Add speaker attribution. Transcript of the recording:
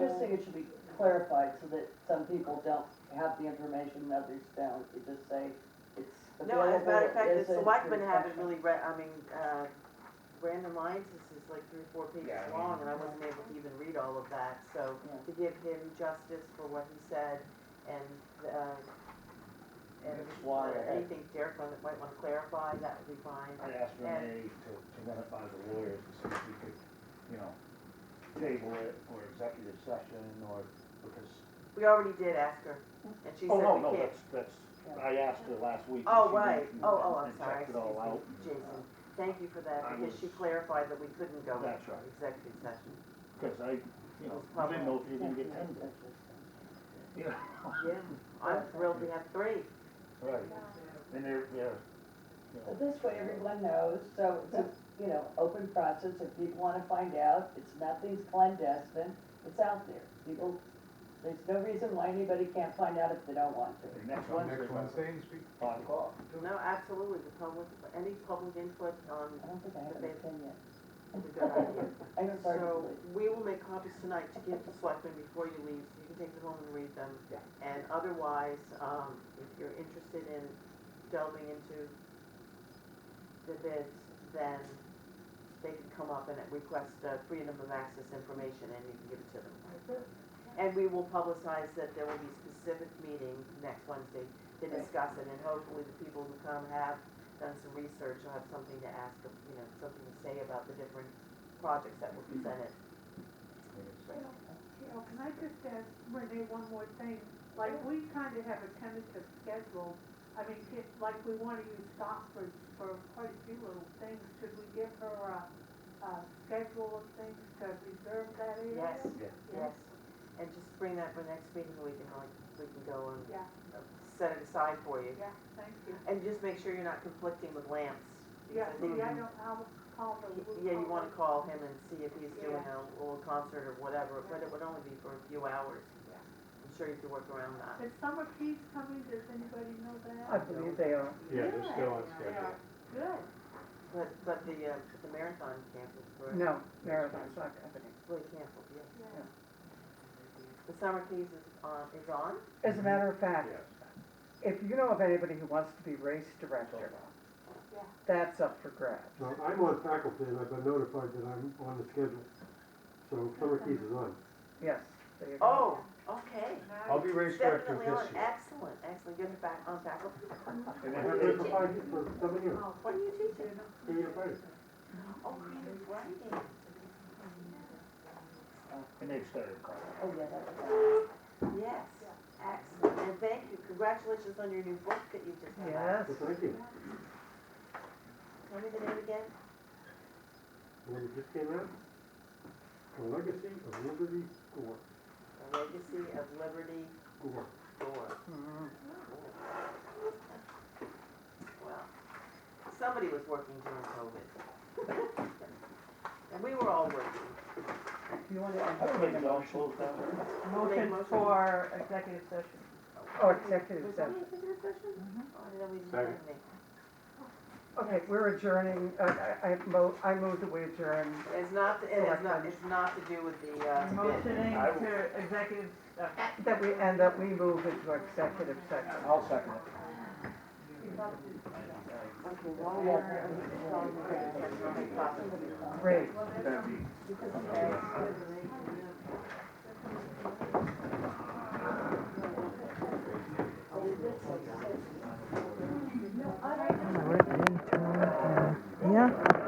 Speaker 1: just think it should be clarified so that some people don't have the information and others don't. You just say it's
Speaker 2: No,
Speaker 1: available.
Speaker 2: as a matter of fact,
Speaker 1: is
Speaker 2: the
Speaker 1: a
Speaker 2: selectmen haven't
Speaker 1: discussion.
Speaker 2: really read, I mean, uh, Brandon Lyons, this is like three, or four pages
Speaker 3: Yeah, I
Speaker 2: long,
Speaker 3: mean-
Speaker 2: and I wasn't able to even read all of that, so
Speaker 1: Yeah.
Speaker 2: to give him justice for what he said and, uh, and
Speaker 3: That's
Speaker 1: why I-
Speaker 2: anything Derek might might wanna clarify, that would be fine.
Speaker 3: I asked Renee to, to run it by the lawyers to see if we could, you know, table it or executive session or because.
Speaker 2: We already did ask her, and she said
Speaker 3: Oh,
Speaker 2: we
Speaker 3: no,
Speaker 2: can't.
Speaker 3: no, that's, that's, I asked her last week. and
Speaker 2: Oh,
Speaker 3: she
Speaker 2: right,
Speaker 3: went and-
Speaker 2: oh, oh, I'm
Speaker 3: and
Speaker 2: sorry,
Speaker 3: checked it all out.
Speaker 2: excuse me, Jason, thank you for that,
Speaker 3: I
Speaker 2: because she
Speaker 3: was-
Speaker 2: clarified that we couldn't go
Speaker 3: That's
Speaker 2: into
Speaker 3: right.
Speaker 2: executive session.
Speaker 3: Because I, you know, I didn't know if you were gonna get ten days, you know?
Speaker 2: Yeah, I'm thrilled we have three.
Speaker 3: Right, and they're, they're, you
Speaker 1: But
Speaker 3: know,
Speaker 1: this way, everyone knows, so it's a, you know, open process, if people wanna find out, it's nothing's clandestine, it's out there. People, there's no reason why anybody can't find out if they don't want to.
Speaker 3: they're next
Speaker 4: So
Speaker 3: Wednesday.
Speaker 4: Next Wednesday, you speak?
Speaker 3: Five o'clock.
Speaker 2: No, absolutely, the public, any public input on
Speaker 1: I don't think I have an opinion.
Speaker 2: is a good idea.
Speaker 1: I haven't started to
Speaker 2: So
Speaker 1: believe.
Speaker 2: we will make copies tonight to give to selectmen before you leave, so you can take them home and read them.
Speaker 3: Yeah.
Speaker 2: And otherwise, um, if you're interested in delving into the bids, then they can come up and request uh, freedom of access information and you can give it to them. And we will publicize that there will be specific meeting next Wednesday to
Speaker 1: Right.
Speaker 2: discuss it and hopefully the people who come have done some research, will have something to ask, you know, something to say about the different projects that were presented.
Speaker 5: Well, you know, can I just ask Renee one more thing? Like, we kind of have a tentative schedule. I mean, if, like, we want to use Stockbridge for quite a few little things. Should we give her a, a schedule of things to reserve that area?
Speaker 2: Yes, yes. And just bring that for next meeting, we can like, we can go and
Speaker 5: Yeah,
Speaker 2: set it aside for you.
Speaker 5: yeah, thank you.
Speaker 2: And just make sure you're not conflicting with Lance.
Speaker 5: Yeah,
Speaker 2: because I think-
Speaker 5: see, I don't, I'll call the.
Speaker 2: Yeah, you wanna call him and see if he's doing
Speaker 5: Yeah.
Speaker 2: a little concert or whatever, but it would only be for a few hours.
Speaker 5: Yeah.
Speaker 2: I'm sure you could work around that.
Speaker 5: Is Summer Keys coming? Does anybody know that?
Speaker 6: I believe they are.
Speaker 4: Yeah, they're still on
Speaker 5: Yeah,
Speaker 4: schedule.
Speaker 5: Good.
Speaker 2: But, but the, uh, the marathon canceled, correct?
Speaker 6: No, Marathon's not happening.
Speaker 2: Well, it canceled, yeah.
Speaker 5: Yeah.
Speaker 2: The summer keys is on, is on?
Speaker 6: As a matter of fact,
Speaker 3: Yes.
Speaker 6: if you know of anybody who wants to be race director,
Speaker 5: Yeah.
Speaker 6: that's up for grabs.
Speaker 7: Now, I'm on faculty and I've been notified that I'm on the schedule, so summer keys is on.
Speaker 6: Yes, there you go.
Speaker 2: Oh, okay.
Speaker 3: I'll be race director
Speaker 2: Definitely on,
Speaker 3: this year.
Speaker 2: excellent, excellent, get it back on faculty.
Speaker 3: And
Speaker 7: I've
Speaker 3: then-
Speaker 7: been for five, for seven years,
Speaker 2: What are you teaching?
Speaker 7: eight years later.
Speaker 2: Oh, creative writing.
Speaker 3: And they've started calling.
Speaker 1: Oh, yeah, that was,
Speaker 2: Yes, excellent, and thank you, congratulations on your new book that you just have out.
Speaker 6: Yes,
Speaker 7: So thank you.
Speaker 2: Tell me the name again?
Speaker 7: And then it just came out, The Legacy of Liberty Gore,
Speaker 2: The Legacy of Liberty
Speaker 7: Gore.
Speaker 2: Door.
Speaker 6: Mhm.
Speaker 2: Well, somebody was working during COVID. And we were all working.
Speaker 6: you want to
Speaker 3: I don't
Speaker 6: entertain
Speaker 3: think
Speaker 6: a
Speaker 3: they'll
Speaker 6: motion?
Speaker 3: close down.
Speaker 2: Motion for executive session.
Speaker 6: Oh, executive session.
Speaker 2: Was that executive session? Oh, I didn't know we didn't have
Speaker 7: Second.
Speaker 2: any.
Speaker 6: Okay, we're adjourning, uh, I, I mo- I move that we adjourn.
Speaker 2: It's not, it is not, it's not to do with the, uh, bid.
Speaker 3: I will-
Speaker 6: That we, and that we move into executive section.
Speaker 3: I'll second it.
Speaker 2: Okay, why are you telling me that? That's not a problem.
Speaker 6: Great.
Speaker 3: That'd be-
Speaker 1: yeah.
Speaker 6: Yeah.